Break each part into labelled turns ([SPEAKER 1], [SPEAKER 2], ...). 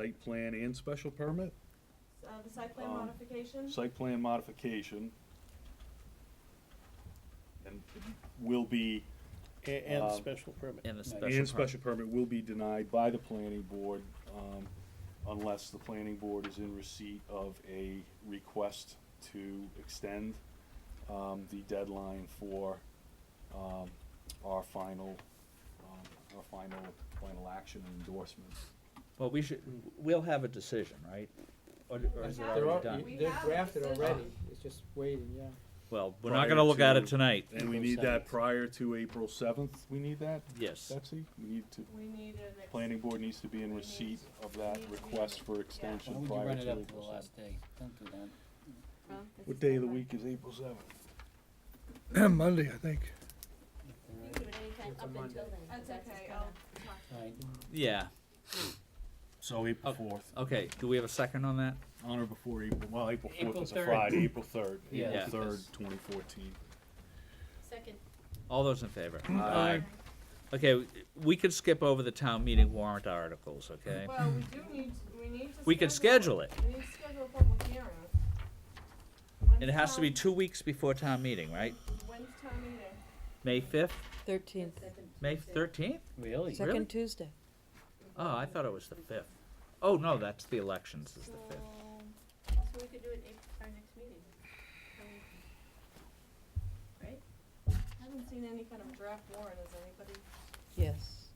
[SPEAKER 1] site plan and special permit?
[SPEAKER 2] Uh, the site plan
[SPEAKER 1] Um,
[SPEAKER 2] modification?
[SPEAKER 1] Site plan modification. And will be,
[SPEAKER 3] A- And
[SPEAKER 4] Um,
[SPEAKER 1] Uh,
[SPEAKER 3] the special permit.
[SPEAKER 5] And a special
[SPEAKER 1] and
[SPEAKER 5] permit.
[SPEAKER 1] special permit will be denied by the planning board, um, unless the planning board is in receipt of a request to extend, um, the deadline for, um, our final, um, our final, final action and endorsement.
[SPEAKER 5] Well, we should, we'll have a decision, right? Or or is it
[SPEAKER 2] They're
[SPEAKER 5] already
[SPEAKER 2] al-
[SPEAKER 5] done?
[SPEAKER 2] we-
[SPEAKER 4] They're
[SPEAKER 2] have a
[SPEAKER 4] drafted
[SPEAKER 2] decision.
[SPEAKER 4] already, it's just waiting, yeah.
[SPEAKER 5] Well, we're not
[SPEAKER 1] Prior
[SPEAKER 5] gonna look at
[SPEAKER 1] to-
[SPEAKER 5] it tonight.
[SPEAKER 1] And we
[SPEAKER 4] April
[SPEAKER 1] need that
[SPEAKER 4] 7th.
[SPEAKER 1] prior to April seventh, we need that,
[SPEAKER 5] Yes.
[SPEAKER 1] Betsy? We need to,
[SPEAKER 2] We need an. ex-
[SPEAKER 1] planning board needs to be in receipt of that request for
[SPEAKER 2] Why
[SPEAKER 1] extension
[SPEAKER 6] Why would you
[SPEAKER 1] prior
[SPEAKER 6] run
[SPEAKER 1] to
[SPEAKER 6] it
[SPEAKER 1] April
[SPEAKER 6] up to the
[SPEAKER 1] seventh.
[SPEAKER 6] last day? Don't do that.
[SPEAKER 2] Huh? This
[SPEAKER 1] What
[SPEAKER 2] is
[SPEAKER 1] day of the
[SPEAKER 2] Monday.
[SPEAKER 1] week is April seventh?
[SPEAKER 7] Monday, I think.
[SPEAKER 2] You can do it anytime
[SPEAKER 4] It's a
[SPEAKER 2] up until
[SPEAKER 4] Monday.
[SPEAKER 2] then. That's okay, I'll talk.
[SPEAKER 6] Right.
[SPEAKER 5] Yeah,
[SPEAKER 1] So April fourth,
[SPEAKER 5] okay, do we have a second on that?
[SPEAKER 1] on or before April, well, April fourth
[SPEAKER 6] April
[SPEAKER 1] is a
[SPEAKER 6] 3rd.
[SPEAKER 1] Friday, April third,
[SPEAKER 6] Yeah,
[SPEAKER 1] April
[SPEAKER 5] Yeah.
[SPEAKER 1] third,
[SPEAKER 6] because-
[SPEAKER 1] twenty fourteen.
[SPEAKER 2] Second.
[SPEAKER 5] All those in favor? Okay, w- we could skip over the town meeting warrant articles, okay?
[SPEAKER 2] Well, we do need, to- we need to.
[SPEAKER 5] We can schedule it.
[SPEAKER 2] We need to schedule a public hearing.
[SPEAKER 5] It
[SPEAKER 2] When's
[SPEAKER 5] has to be
[SPEAKER 2] town-
[SPEAKER 5] two weeks before town meeting, right?
[SPEAKER 2] When's town meeting?
[SPEAKER 5] May fifth,
[SPEAKER 8] Thirteenth,
[SPEAKER 5] May thirteenth?
[SPEAKER 6] Really?
[SPEAKER 5] Really?
[SPEAKER 8] second Tuesday.
[SPEAKER 5] Oh, I thought it was the fifth. Oh, no, that's the elections is the fifth.
[SPEAKER 2] So we could do it at our next meeting. Right? I haven't seen any kind of draft warrant, has anybody?
[SPEAKER 8] Yes.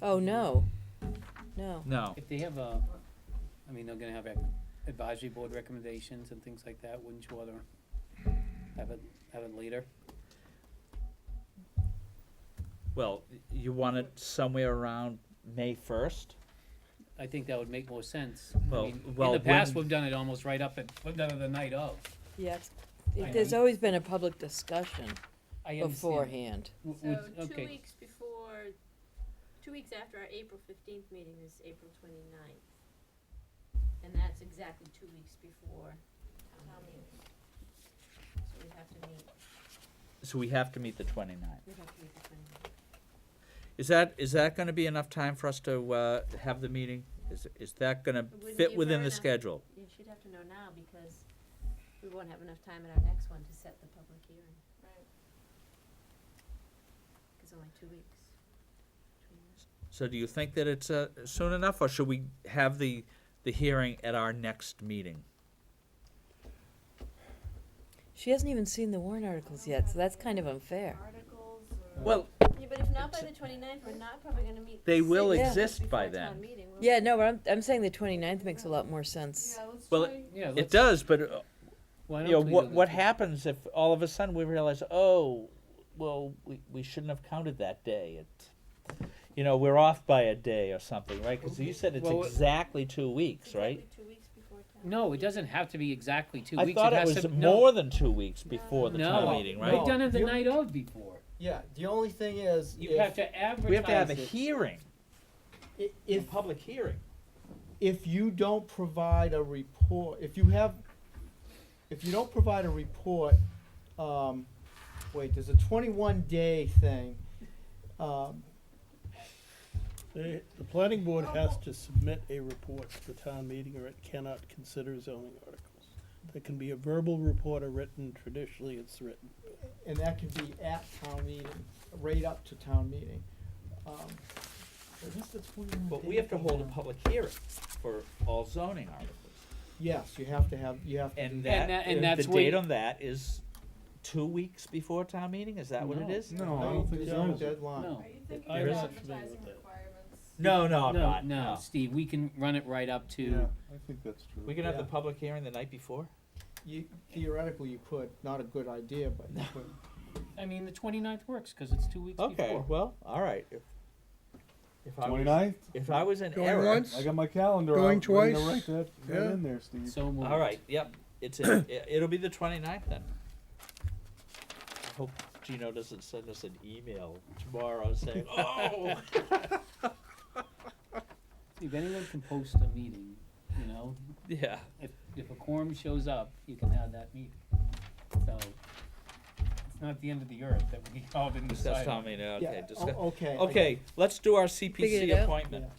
[SPEAKER 8] Oh, no. No.
[SPEAKER 5] No,
[SPEAKER 6] If they have a, I mean, they're gonna have ac- advisory board recommendations and things like that, wouldn't you rather have it, have it later?
[SPEAKER 5] well, y- you want it somewhere around May first?
[SPEAKER 6] I think that would make more sense. I
[SPEAKER 5] Well-
[SPEAKER 6] mean,
[SPEAKER 5] well,
[SPEAKER 6] In the past,
[SPEAKER 5] when-
[SPEAKER 6] we've done it almost right up at, we've done it the night of.
[SPEAKER 8] Yes.
[SPEAKER 6] I
[SPEAKER 8] There's
[SPEAKER 6] know.
[SPEAKER 8] always been a public discussion
[SPEAKER 6] I understand.
[SPEAKER 8] beforehand.
[SPEAKER 6] W-
[SPEAKER 9] So
[SPEAKER 6] would-
[SPEAKER 9] two
[SPEAKER 6] okay.
[SPEAKER 9] weeks before, two weeks after our April fifteenth meeting is April twenty-ninth. And that's exactly two weeks before town meeting. So we'd have to meet,
[SPEAKER 5] So we have to meet the twenty-ninth.
[SPEAKER 9] we'd have to meet the twenty-ninth.
[SPEAKER 5] Is that, is that gonna be enough time for us to, uh, have the meeting? Is, is that gonna
[SPEAKER 9] wouldn't
[SPEAKER 5] fit
[SPEAKER 9] be
[SPEAKER 5] within
[SPEAKER 9] far
[SPEAKER 5] the
[SPEAKER 9] enough.
[SPEAKER 5] schedule?
[SPEAKER 9] You should have to know now because we won't have enough time at our next one to set the public hearing,
[SPEAKER 2] Right.
[SPEAKER 9] cause only two weeks. between that.
[SPEAKER 5] So do you think that it's, uh, soon enough, or should we have the, the hearing at our next meeting?
[SPEAKER 8] She hasn't even seen the warrant articles yet, so that's kind of unfair.
[SPEAKER 2] Articles or?
[SPEAKER 5] Well,
[SPEAKER 9] Yeah, but if not by the twenty-ninth, we're not probably gonna meet.
[SPEAKER 5] They will
[SPEAKER 9] six
[SPEAKER 5] exist
[SPEAKER 9] weeks
[SPEAKER 5] by
[SPEAKER 9] before town
[SPEAKER 5] then.
[SPEAKER 9] meeting, will we?
[SPEAKER 8] Yeah, no, but I'm, I'm saying the 29th makes a lot more sense.
[SPEAKER 2] Yeah, let's
[SPEAKER 5] Well,
[SPEAKER 2] try-
[SPEAKER 6] Yeah,
[SPEAKER 5] it
[SPEAKER 6] let's,
[SPEAKER 5] does, but, uh,
[SPEAKER 6] why
[SPEAKER 5] you know,
[SPEAKER 6] don't we do
[SPEAKER 5] what,
[SPEAKER 6] the
[SPEAKER 5] what
[SPEAKER 6] tw-
[SPEAKER 5] happens if all of a sudden we realize, oh, well, we, we shouldn't have counted that day, it, you know, we're off by a day or something, right? Cause you said it's
[SPEAKER 6] Well, it-
[SPEAKER 5] exactly two weeks, right?
[SPEAKER 9] Exactly two weeks before town.
[SPEAKER 6] No, it doesn't have to be exactly two
[SPEAKER 5] I
[SPEAKER 6] weeks.
[SPEAKER 5] thought it
[SPEAKER 6] has
[SPEAKER 5] was
[SPEAKER 6] to- no,
[SPEAKER 5] more than two weeks before the
[SPEAKER 6] no,
[SPEAKER 5] town meeting, right?
[SPEAKER 6] We've done it the
[SPEAKER 4] You-
[SPEAKER 6] night of before.
[SPEAKER 4] Yeah, the only thing is,
[SPEAKER 6] You have
[SPEAKER 4] if,
[SPEAKER 6] to advertise
[SPEAKER 5] We have to have a
[SPEAKER 6] it.
[SPEAKER 5] hearing,
[SPEAKER 4] i-
[SPEAKER 5] a
[SPEAKER 4] if,
[SPEAKER 5] public hearing.
[SPEAKER 4] if you don't provide a report, if you have, if you don't provide a report, um, wait, there's a twenty-one day thing. Um,
[SPEAKER 3] The, the planning board
[SPEAKER 2] Oh,
[SPEAKER 3] has to submit a report to the town meeting or it cannot consider zoning articles. There can be a verbal report or written, traditionally it's written.
[SPEAKER 4] and that can be at town meeting, right up to town meeting. Um, but what's the 21
[SPEAKER 5] But
[SPEAKER 4] day
[SPEAKER 5] we have to hold a
[SPEAKER 4] thing?
[SPEAKER 5] public hearing for all zoning articles.
[SPEAKER 4] Yes, you have to have, you have to. do
[SPEAKER 5] And
[SPEAKER 6] that-
[SPEAKER 5] that, uh,
[SPEAKER 6] and
[SPEAKER 5] the
[SPEAKER 6] that's what-
[SPEAKER 5] date on that is two weeks before town meeting, is that what it
[SPEAKER 6] No.
[SPEAKER 5] is?
[SPEAKER 1] No, I
[SPEAKER 4] No,
[SPEAKER 1] don't think
[SPEAKER 4] there's
[SPEAKER 3] that
[SPEAKER 4] no
[SPEAKER 3] was-
[SPEAKER 4] deadline.
[SPEAKER 6] No.
[SPEAKER 2] Are you thinking
[SPEAKER 3] I
[SPEAKER 2] of
[SPEAKER 3] wasn't familiar
[SPEAKER 2] advertising
[SPEAKER 3] with that.
[SPEAKER 2] requirements?
[SPEAKER 5] No, no, I'm
[SPEAKER 6] no,
[SPEAKER 5] not,
[SPEAKER 6] no,
[SPEAKER 5] no.
[SPEAKER 6] Steve, we can run it right up to.
[SPEAKER 1] Yeah, I think that's true.
[SPEAKER 5] We can have the
[SPEAKER 4] Yeah.
[SPEAKER 5] public hearing the night before?
[SPEAKER 4] You, theoretically, you could, not a good idea, but you could.
[SPEAKER 6] I mean, the 29th works because it's two weeks
[SPEAKER 5] Okay,
[SPEAKER 6] before.
[SPEAKER 5] well, all right. If- If I was,
[SPEAKER 1] Twenty-ninth,
[SPEAKER 5] if I was in
[SPEAKER 7] Going
[SPEAKER 5] error,
[SPEAKER 7] once?
[SPEAKER 1] I got my calendar out.
[SPEAKER 7] Going
[SPEAKER 1] ready
[SPEAKER 7] twice?
[SPEAKER 1] to write that, that
[SPEAKER 7] Yeah.
[SPEAKER 1] in there, Steve.
[SPEAKER 6] So moved.
[SPEAKER 5] all right, yep, it's, in- i- it'll be the twenty-ninth then. I hope Gino doesn't send us an email tomorrow saying, oh.
[SPEAKER 6] If anyone can post a meeting, you know,
[SPEAKER 5] Yeah.
[SPEAKER 6] if, if a quorum shows up, you can have that meeting. So it's not the end of the earth that we all didn't
[SPEAKER 5] Discuss
[SPEAKER 6] decide.
[SPEAKER 5] town meeting,
[SPEAKER 4] Yeah,
[SPEAKER 5] okay,
[SPEAKER 4] o-
[SPEAKER 5] discuss,
[SPEAKER 4] Okay. I-
[SPEAKER 5] okay, let's do our
[SPEAKER 8] Figured it
[SPEAKER 5] CPC
[SPEAKER 8] out.
[SPEAKER 5] appointment.
[SPEAKER 4] Yeah.